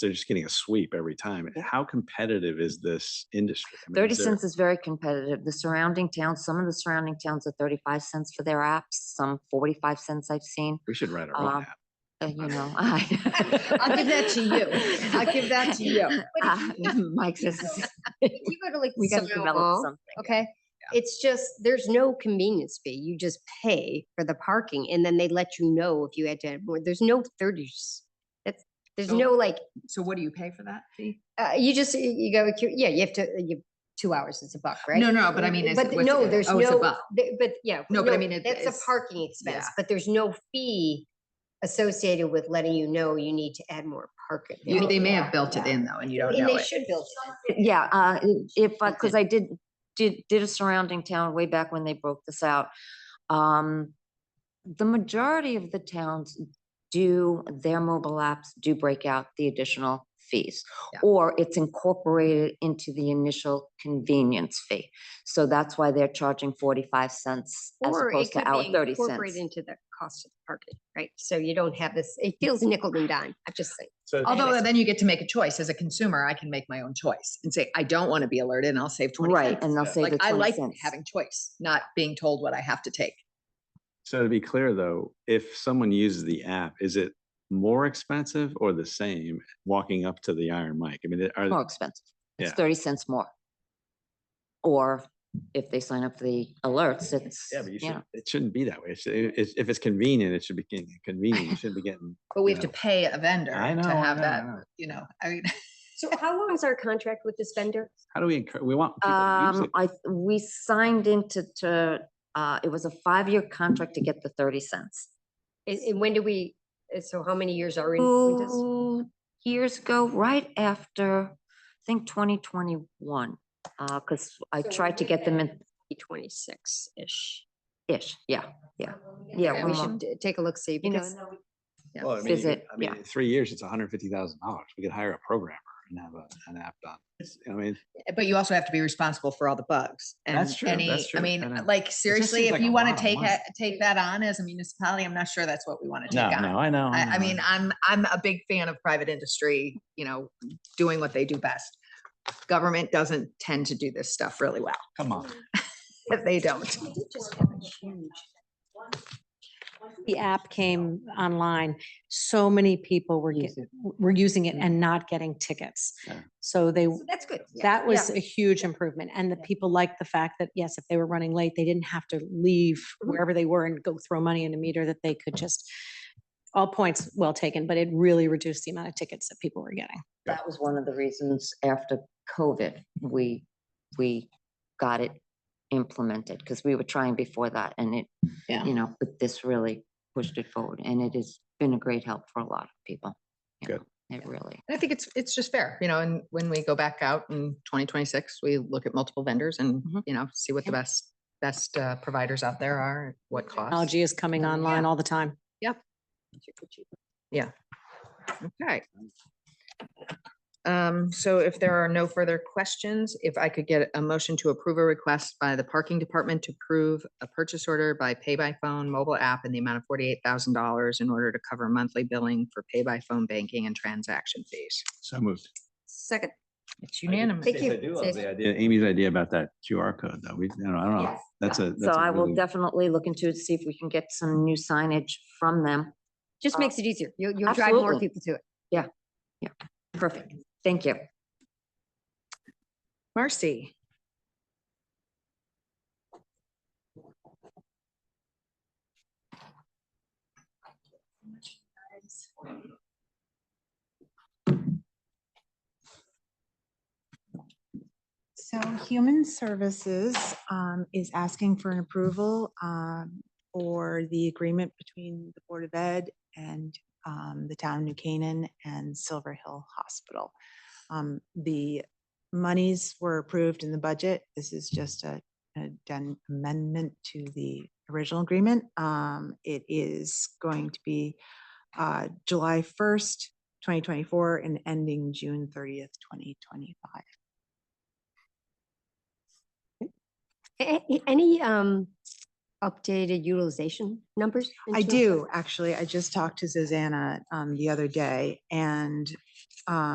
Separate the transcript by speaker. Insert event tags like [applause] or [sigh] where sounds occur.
Speaker 1: they're just getting a sweep every time. How competitive is this industry? I mean,
Speaker 2: Thirty
Speaker 1: is there-
Speaker 2: cents is very competitive. The surrounding towns, some of the surrounding towns are thirty-five cents for their apps, some forty-five cents I've seen,
Speaker 1: We should write our
Speaker 2: Um,
Speaker 1: own app.
Speaker 2: uh, you know. [laughs]
Speaker 3: I'll give that to you. I'll give that to you.
Speaker 2: [laughs] Uh, Mike says, [laughs]
Speaker 3: If you go to like
Speaker 2: we gotta develop
Speaker 3: Sonoval,
Speaker 2: something.
Speaker 3: okay? It's just, there's no convenience fee. You just pay for the parking and then they let you know if you had to add more. There's no thirties. That's, there's
Speaker 4: So-
Speaker 3: no like,
Speaker 4: So what do you pay for that fee?
Speaker 3: uh, you just, you- you go, with your- yeah, you have to, you, two hours is a buck, right?
Speaker 4: No, no, but I mean, is
Speaker 3: But
Speaker 4: it- what's
Speaker 3: no,
Speaker 4: it-
Speaker 3: there's
Speaker 4: oh, it's a
Speaker 3: no,
Speaker 4: buck.
Speaker 3: th- but yeah.
Speaker 4: No, but I mean, it-
Speaker 3: That's a
Speaker 4: it's-
Speaker 3: parking expense,
Speaker 4: yeah.
Speaker 3: but there's no fee associated with letting you know you need to add more parking. I
Speaker 4: You-
Speaker 3: mean,
Speaker 4: They may have built it
Speaker 3: yeah.
Speaker 4: in though, and you don't
Speaker 3: And
Speaker 4: know
Speaker 3: they
Speaker 4: it.
Speaker 3: should build. it in.
Speaker 2: Yeah, uh, if,
Speaker 4: Okay.
Speaker 2: because I did, did, did a surrounding town way back when they broke this out. Um, the majority of the towns do, their mobile apps do break out the additional fees.
Speaker 4: Yeah.
Speaker 2: Or it's incorporated into the initial convenience fee. So that's why they're charging forty-five cents as
Speaker 3: Or it
Speaker 2: opposed
Speaker 3: could
Speaker 2: to our
Speaker 3: be
Speaker 2: thirty
Speaker 3: incorporated
Speaker 2: cents.
Speaker 3: into the cost of the parking, right? So you don't have this, it feels nickel and dime, I'm just saying.
Speaker 1: So
Speaker 4: Although then you get to make a choice. As a consumer, I can make my own choice and say, I don't want to be alerted and I'll save twenty
Speaker 2: Right,
Speaker 4: cents.
Speaker 2: and they'll save
Speaker 4: Like
Speaker 2: the
Speaker 4: I
Speaker 2: twenty
Speaker 4: like
Speaker 2: cents.
Speaker 4: having choice, not being told what I have to take.
Speaker 1: So to be clear though, if someone uses the app, is it more expensive or the same walking up to the Iron Mike? I mean, are,
Speaker 2: More expensive. It's
Speaker 1: Yeah.
Speaker 2: thirty cents more. Or if they sign up for the alerts, it's,
Speaker 1: yeah, but you
Speaker 2: yeah.
Speaker 1: should, it shouldn't be that way. It should- it- it's- if it's convenient, it should be getting- convenient. You shouldn't be [laughs] getting.
Speaker 4: But we
Speaker 1: you
Speaker 4: have to
Speaker 1: know,
Speaker 4: pay a vendor
Speaker 1: I know,
Speaker 4: to
Speaker 1: I
Speaker 4: have
Speaker 1: know, I
Speaker 4: that,
Speaker 1: know.
Speaker 4: you know, I mean, [laughs]
Speaker 3: So how long is our contract with this vendor?
Speaker 1: How do we encourage, we want people to use
Speaker 2: Um,
Speaker 1: it.
Speaker 2: I, th- we signed into, to, uh, it was a five-year contract to get the thirty cents.
Speaker 3: And, and when do we, uh, so how many years are in with
Speaker 2: Two
Speaker 3: this?
Speaker 2: Oh, years ago, right after, I think twenty twenty-one, uh, cause I
Speaker 3: So
Speaker 2: tried to
Speaker 3: we're
Speaker 2: get them in,
Speaker 3: Twenty-six-ish.
Speaker 2: ish, yeah, yeah. Yeah,
Speaker 3: Yeah,
Speaker 2: one
Speaker 3: we
Speaker 2: more.
Speaker 3: should d- take a look, see,
Speaker 2: You know,
Speaker 3: because
Speaker 4: yeah.
Speaker 1: Well, I mean, you
Speaker 2: visit,
Speaker 1: could- I mean,
Speaker 2: yeah.
Speaker 1: in three years, it's hundred fifty thousand dollars. We could hire a programmer and have a, an app done. It's- I mean,
Speaker 4: But you also have to be responsible for all the bugs. and
Speaker 1: That's true,
Speaker 4: any-
Speaker 1: that's
Speaker 4: I
Speaker 1: true, I know.
Speaker 4: mean, like seriously,
Speaker 1: seems
Speaker 4: if
Speaker 1: like a
Speaker 4: you want
Speaker 1: lot
Speaker 4: to
Speaker 1: of
Speaker 4: take,
Speaker 1: money.
Speaker 4: a- take that on as a municipality, I'm not sure that's what we want to
Speaker 1: no,
Speaker 4: take on.
Speaker 1: no, I know.
Speaker 4: I, I
Speaker 1: know.
Speaker 4: mean, I'm, I'm a big fan of private industry, you know, doing what they do best. Government doesn't tend to do this stuff really well.
Speaker 1: Come on.
Speaker 4: They don't.
Speaker 5: the app came online, so many people were, get- were using it and not getting tickets.
Speaker 1: Yeah.
Speaker 5: So they,
Speaker 3: that's good. yeah,
Speaker 5: that was
Speaker 3: yeah.
Speaker 5: a huge improvement. And the people liked the fact that, yes, if they were running late, they didn't have to leave
Speaker 3: Mhm.
Speaker 5: wherever they were and go throw money in a meter, that they could just, all points well taken, but it really reduced the amount of tickets that people were getting.
Speaker 2: That was one of the reasons after COVID, we, we got it implemented, because we were trying before that and it,
Speaker 5: Yeah.
Speaker 2: you know, but this really pushed it forward and it has been a great help for a lot of people. you
Speaker 1: Good.
Speaker 2: know, It really.
Speaker 4: And I think it's, it's just fair, you know, and when we go back out in twenty twenty-six, we look at multiple vendors and,
Speaker 2: Mhm.
Speaker 4: you know, see what the best, best uh, providers out there are, at what cost.
Speaker 5: Technology is coming online all the time.
Speaker 4: Okay. Um, so if there are no further questions, if I could get a motion to approve a request by the parking department to approve a purchase order by pay by phone mobile app in the amount of forty-eight thousand dollars in order to cover monthly billing for pay by phone banking and transaction fees.
Speaker 1: So moved.
Speaker 3: Second.
Speaker 4: It's unanimous.
Speaker 3: Thank you. Say-
Speaker 1: idea- Amy's idea about that QR code though. We, you know, I don't know. That's a.
Speaker 2: So
Speaker 1: that's a
Speaker 2: I will
Speaker 1: really-
Speaker 2: definitely look into it, see if we can get some new signage from them.
Speaker 3: Just
Speaker 2: Uh,
Speaker 3: makes it easier. You'll, you'll drive more
Speaker 2: absolutely.
Speaker 3: people to it.
Speaker 2: Perfect. Thank you.
Speaker 4: Marcy.
Speaker 6: So Human Services um, is asking for an approval um, for the agreement between the Board of Ed and um, the town of New Canaan and Silver Hill Hospital. Um, The monies were approved in the budget. This is just a an amendment to the original agreement. Um, It is going to be uh, July 1st, 2024 and ending June 30th, 2025.
Speaker 3: A- a- Any, um, updated utilization numbers? in
Speaker 6: I
Speaker 3: Children's
Speaker 6: do, actually. I just talked to Susanna um, the other day and um,